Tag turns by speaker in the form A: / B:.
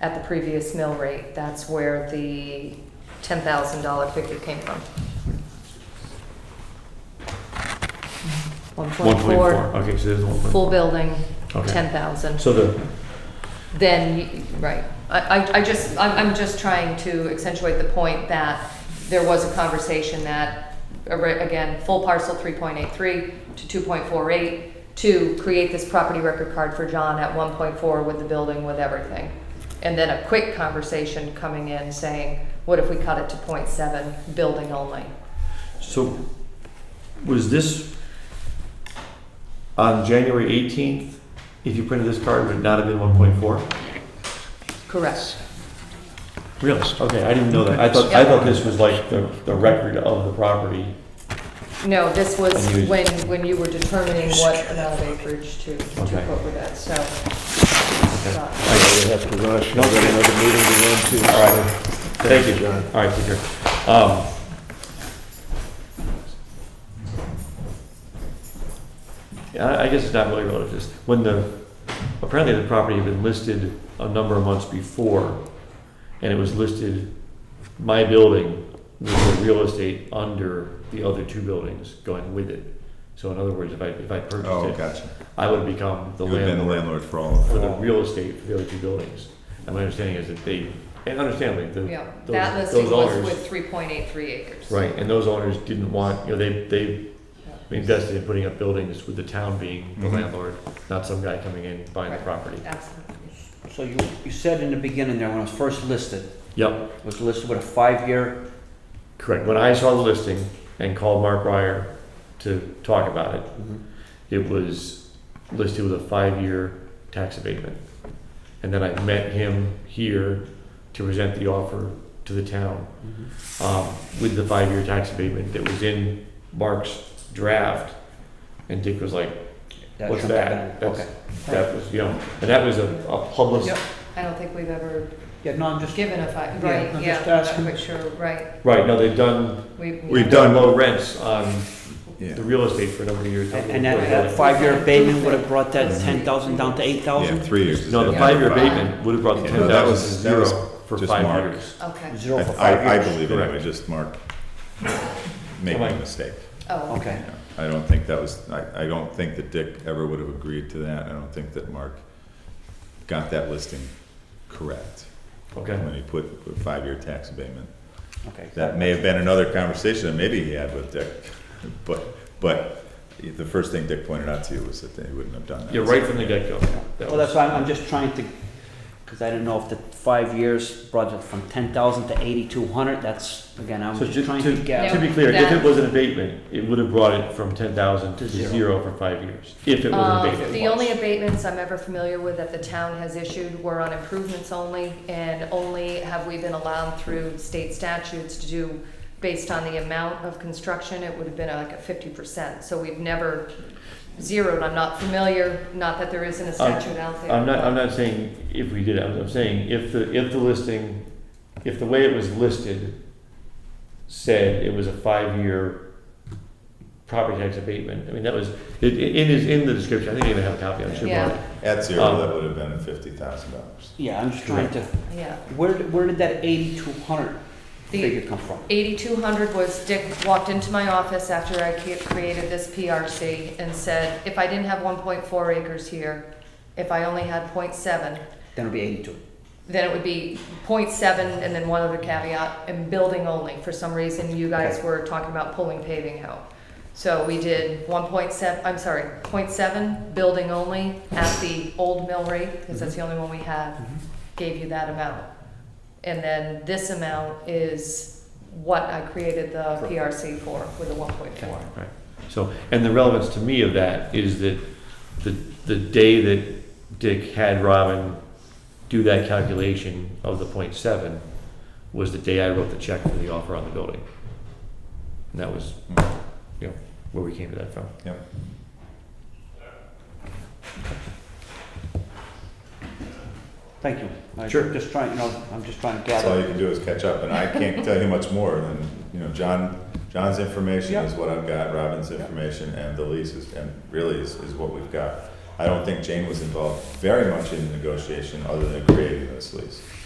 A: at the previous mill rate. That's where the $10,000 figure came from. 1.4,
B: Okay, so there's one point
A: full
B: four.
A: building,
B: Okay.
A: 10,000.
B: So the,
A: Then, you- right. I, I- I just, I'm, I'm just trying to accentuate the point that there was a conversation that, a re- again, full parcel 3.83 to 2.48, to create this property record card for John at 1.4 with the building, with everything. And then a quick conversation coming in saying, what if we cut it to .7, building only?
B: so was this on January 18th? If you printed this card, would it not have been 1.4?
A: Correct.
B: Really? Okay, I didn't know that. I thought, I thought this was like the, the record of the property.
A: No, this was
B: And you-
A: when, when you were determining what amount of acreage to, to put
B: Okay.
A: with it, so.
C: I gotta have to rush, I've got another meeting to run to.
B: All right, thank you, John. All right, take care. Um, Yeah, I I guess it's not really relative to this. When the, apparently the property had been listed a number of months before, and it was listed, my building was the real estate under the other two buildings going with it. So in other words, if I, if I
D: Oh,
B: purchased it,
D: gotcha.
B: I would become the
D: You have been the
B: landlord
D: landlord for all of
B: for
D: them.
B: the real estate for the other two buildings. And my understanding is that they, and understandably, the,
A: Yeah,
B: those,
A: that listing
B: those
A: was
B: owners,
A: with three point eight three acres.
B: right, and those owners didn't want, you know, they, they
A: Yeah,
B: invested in putting up buildings with the town being the
D: Mhm.
B: landlord, not some guy coming in buying the
A: Right.
B: property.
A: Absolutely.
E: So you, you said in the beginning there, when it was first listed,
B: Yep,
E: it was listed with a five-year,
B: correct. When I saw the listing and called Mark Ryer to talk about it, it was listed with a five-year tax abatement. And then I met him here to present the offer to the town. um, with the five-year tax abatement that was in Mark's draft. And Dick was like,
E: that
B: What's
E: jumped
B: that?
E: back.
B: That's-
E: Okay.
B: that was, you know, and that was a, a public,
A: Yep. I don't think we've ever
E: Yeah, no, I'm just,
A: given a five,
E: Yeah,
A: right,
E: I'm
A: yeah,
E: just
A: I'm
E: asking.
A: not quite sure, right.
B: right, no, they've done,
A: We've-
D: We've done-
B: done low rents on
D: Yeah.
B: the real estate for a number of years.
E: and and that, that five-year abatement would have brought that ten thousand down to eight
D: Yeah,
E: thousand?
D: three years. is
B: No, the
D: it?
B: five-year abatement would have brought the
D: Yeah,
B: ten
D: no, that
B: thousand to
D: was- that
B: zero
D: was
B: for
D: just
B: five
D: Mark.
B: years.
A: Okay,
E: Zero for five
D: I, I
E: years?
D: believe
B: Correct.
D: anyway, just Mark making a mistake.
A: oh, okay.
E: Okay,
D: I don't think that was, I, I don't think that Dick ever would have agreed to that. I don't think that Mark got that listing correct
B: Okay,
D: when he put put five-year tax abatement.
E: okay.
D: That may have been another conversation that maybe he had with Dick, but, but the first thing Dick pointed out to you was that they wouldn't have done that.
B: yeah, right from the get-go. That
E: Well,
B: was-
E: that's why I'm, I'm just trying to, because I didn't know if the five years brought it from ten thousand to eighty-two hundred, that's, again, I'm
B: So
E: just
B: ju-
E: trying
B: to,
E: to
B: to
E: get.
B: be clear, if it
A: That-
B: was an abatement, it would have brought it from ten thousand to
E: To zero.
B: zero for five years, if it was an
A: Um,
B: abatement.
A: The only abatements I'm ever familiar with that the town has issued were on improvements only, and only have we been allowed through state statutes to do, based on the amount of construction, it would have been like a fifty percent. So we've never zeroed, I'm not familiar, not that there isn't a statute out there.
B: I'm not, I'm not saying if we did, it. I'm, I'm saying if the, if the listing, if the way it was listed said it was a five-year property tax abatement, I mean, that was, it, it it is in the description, I think I even have a copy, I should
A: Yeah.
B: want it.
D: At zero, that would have been fifty thousand dollars.
E: Yeah, I'm just trying to,
A: Yeah.
E: where, did- where did that eighty-two hundred
A: The-
E: figure come from?
A: 8,200 was Dick walked into my office after I ca- created this PRC and said, if I didn't have 1.4 acres here, if I only had .7,
E: Then it'll be eighty-two.
A: then it would be .7 and then one other caveat, and building only. For some reason, you guys
E: Okay.
A: were talking about pulling paving out. So we did 1.7, I'm sorry, .7, building only at the old mill rate, because that's the only one we had gave you that amount. And then this amount is what I created the PRC for, with the one point four.
B: Right. So, and the relevance to me of that is that the, the day that Dick had Robin do that calculation of the point seven was the day I wrote the check for the offer on the building. And that was, you know, where we came to that from.
D: Yep.
E: Thank you. I'm
B: Sure.
E: Just trying, you know, I'm just trying to
D: That's all
E: gather.
D: you can do is catch up, and I can't tell you much more than, you know, John, John's information is what I've got, Robin's information, and the lease is, and really is, is what we've got. I don't think Jane was involved very much in the negotiation other than creating this lease.